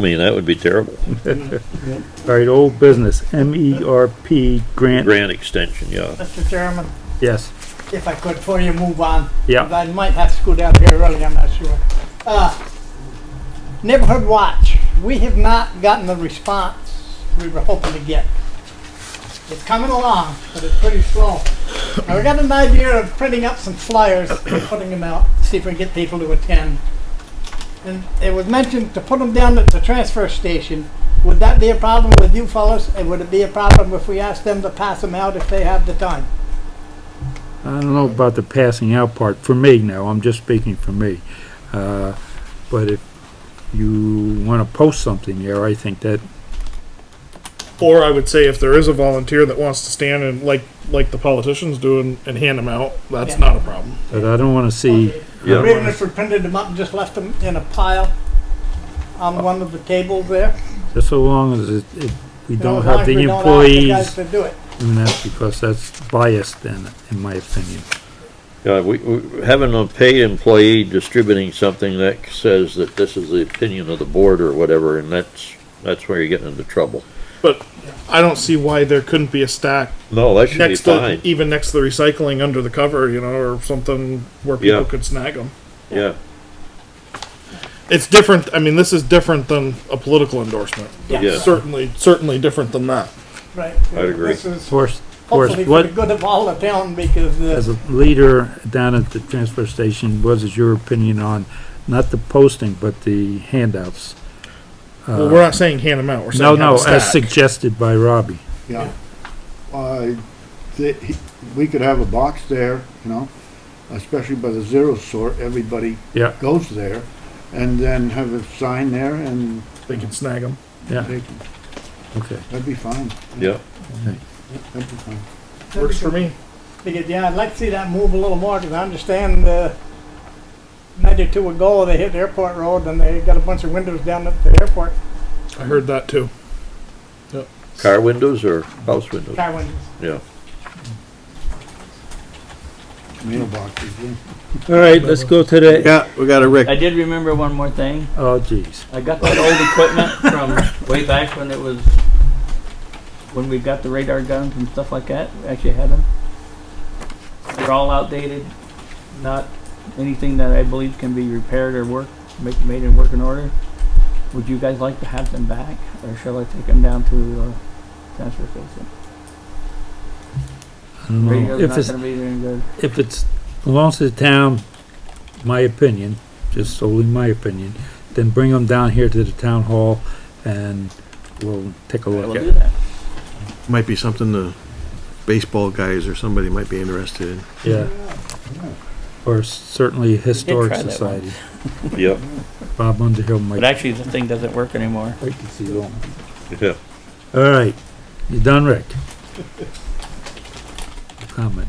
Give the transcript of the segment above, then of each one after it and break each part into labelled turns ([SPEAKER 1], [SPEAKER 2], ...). [SPEAKER 1] I mean, that would be terrible.
[SPEAKER 2] All right, old business, M E R P grant,
[SPEAKER 1] Grant extension, yeah.
[SPEAKER 3] Mr. Chairman,
[SPEAKER 2] yes,
[SPEAKER 3] if I could, before you move on.
[SPEAKER 2] yeah,
[SPEAKER 3] I might have to go down here early, I'm not sure. Uh, Neighborhood Watch, we have not gotten the response we were hoping to get. It's coming along, but it's pretty slow. Now, we got an idea of printing up some flyers and putting them out, see if we can get people to attend. And it was mentioned to put them down at the transfer station. Would that be a problem with you fellows? And would it be a problem if we asked them to pass them out if they have the time?
[SPEAKER 2] I don't know about the passing out part, for me now, I'm just speaking for me. Uh, but if you wanna post something there, I think that,
[SPEAKER 4] Or I would say if there is a volunteer that wants to stand and like like the politicians do and, and hand them out, that's
[SPEAKER 3] Yeah.
[SPEAKER 4] not a problem.
[SPEAKER 2] but I don't wanna see,
[SPEAKER 1] Yeah.
[SPEAKER 3] Even if we printed them up and just left them in a pile
[SPEAKER 2] Uh,
[SPEAKER 3] on one of the tables there.
[SPEAKER 2] just so long as it, it, we
[SPEAKER 3] you know,
[SPEAKER 2] don't
[SPEAKER 3] as long
[SPEAKER 2] have
[SPEAKER 3] as we
[SPEAKER 2] the
[SPEAKER 3] don't ask the guys
[SPEAKER 2] employees
[SPEAKER 3] To do it.
[SPEAKER 2] doing that, because that's biased then, in my opinion.
[SPEAKER 1] Yeah, we, we, having a paid employee distributing something that says that this is the opinion of the board or whatever, and that's, that's where you're getting into trouble.
[SPEAKER 4] But I don't see why there couldn't be a stack
[SPEAKER 1] No, that should be
[SPEAKER 4] next to
[SPEAKER 1] fine,
[SPEAKER 4] even next to the recycling under the cover, you know, or something where people
[SPEAKER 1] Yeah.
[SPEAKER 4] could snag them.
[SPEAKER 1] yeah.
[SPEAKER 4] It's different. I mean, this is different than a political endorsement.
[SPEAKER 1] Yeah.
[SPEAKER 4] Certainly, certainly different than that.
[SPEAKER 3] Right.
[SPEAKER 1] I'd agree.
[SPEAKER 3] This is
[SPEAKER 2] Force, force,
[SPEAKER 3] hopefully for
[SPEAKER 2] what,
[SPEAKER 3] the good of all the town because,
[SPEAKER 2] as
[SPEAKER 3] uh,
[SPEAKER 2] a leader down at the transfer station, what is your opinion on, not the posting, but the handouts?
[SPEAKER 4] well, we're not saying hand them out. We're saying
[SPEAKER 2] No,
[SPEAKER 4] have
[SPEAKER 2] Uh, no,
[SPEAKER 4] a stack.
[SPEAKER 2] as suggested by Robbie.
[SPEAKER 5] Yeah. Uh, the, he, we could have a box there, you know, especially by the zero sort, everybody
[SPEAKER 2] Yeah,
[SPEAKER 5] goes there, and then have a sign there and
[SPEAKER 4] they can snag them.
[SPEAKER 2] yeah,
[SPEAKER 5] they,
[SPEAKER 4] Mm-hmm.
[SPEAKER 2] okay.
[SPEAKER 5] that'd be fine.
[SPEAKER 1] Yeah,
[SPEAKER 5] That'd be fine.
[SPEAKER 4] Works for me.
[SPEAKER 3] because, yeah, I'd like to see that move a little more because I understand, uh, ninety-two ago, they hit Airport Road and they got a bunch of windows down at the airport,
[SPEAKER 4] I heard that too.
[SPEAKER 1] car windows or house windows,
[SPEAKER 3] car windows.
[SPEAKER 1] yeah.
[SPEAKER 5] Mailboxes, yeah.
[SPEAKER 6] All right, let's go to the,
[SPEAKER 7] Yeah, we got a Rick.
[SPEAKER 6] I did remember one more thing.
[SPEAKER 2] Oh, geez.
[SPEAKER 6] I got that old equipment from way back when it was, when we got the radar guns and stuff like that. We actually had them. They're all outdated, not anything that I believe can be repaired or work, make, made in working order. Would you guys like to have them back, or shall I take them down to, uh, transfer station?
[SPEAKER 2] I don't know.
[SPEAKER 6] Radio's
[SPEAKER 2] If
[SPEAKER 6] not
[SPEAKER 2] it's,
[SPEAKER 6] gonna be any good.
[SPEAKER 2] if it's, belongs to the town, my opinion, just solely my opinion, then bring them down here to the town hall and we'll take a
[SPEAKER 6] We'll
[SPEAKER 2] look at
[SPEAKER 6] do
[SPEAKER 2] it.
[SPEAKER 6] that.
[SPEAKER 7] Might be something the baseball guys or somebody might be interested in.
[SPEAKER 2] Yeah. Or certainly Historic
[SPEAKER 6] try that one.
[SPEAKER 2] Society.
[SPEAKER 1] Yeah,
[SPEAKER 2] Bob Underhill might
[SPEAKER 6] But actually, the thing doesn't work anymore.
[SPEAKER 2] I can see that.
[SPEAKER 1] yeah.
[SPEAKER 2] All right, you done, Rick? Comment.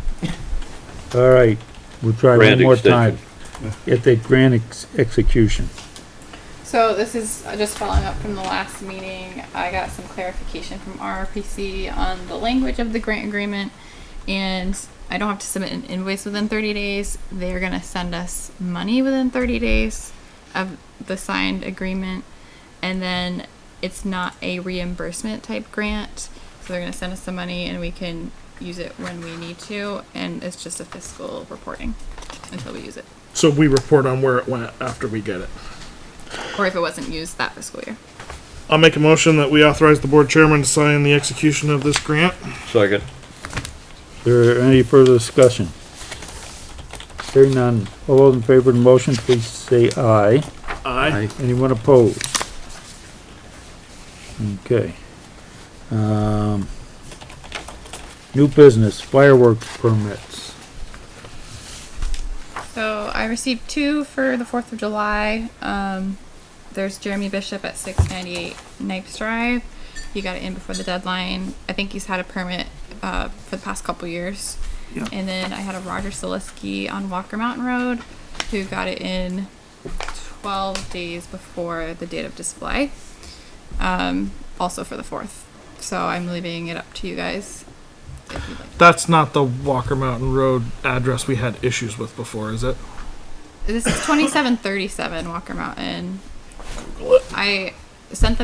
[SPEAKER 2] All right, we'll try
[SPEAKER 1] Grant
[SPEAKER 2] one more time.
[SPEAKER 1] extension.
[SPEAKER 2] Get that grant ex- execution.
[SPEAKER 8] So this is uh, just following up from the last meeting. I got some clarification from RRPC on the language of the grant agreement, and I don't have to submit an invoice within 30 days. They are going to send us money within 30 days of the signed agreement, and then it's not a reimbursement type grant. So they're going to send us some money, and we can use it when we need to, and it's just a fiscal reporting until we use it,
[SPEAKER 4] So we report on where it went after we get it.
[SPEAKER 8] or if it wasn't used that fiscal year.
[SPEAKER 4] I'll make a motion that we authorize the board chairman to sign the execution of this grant.
[SPEAKER 1] Second,
[SPEAKER 2] There any further discussion? Hearing none. All those in favor of the motion, please say aye.
[SPEAKER 4] Aye.
[SPEAKER 2] Anyone opposed? Okay. Um, new business fireworks permits.
[SPEAKER 8] So I received two for the Fourth of July. Um, there's Jeremy Bishop at 698 Knipes Drive. You got it in before the deadline. I think he's had a permit uh, for the past couple years. And then I had a Roger Siliski on Walker Mountain Road who got it in 12 days before the date of display, um, also for the 4th. So I'm leaving it up to you guys if you'd like.
[SPEAKER 4] That's not the Walker Mountain Road address we had issues with before, is it?
[SPEAKER 8] This is 2737 Walker Mountain. I sent them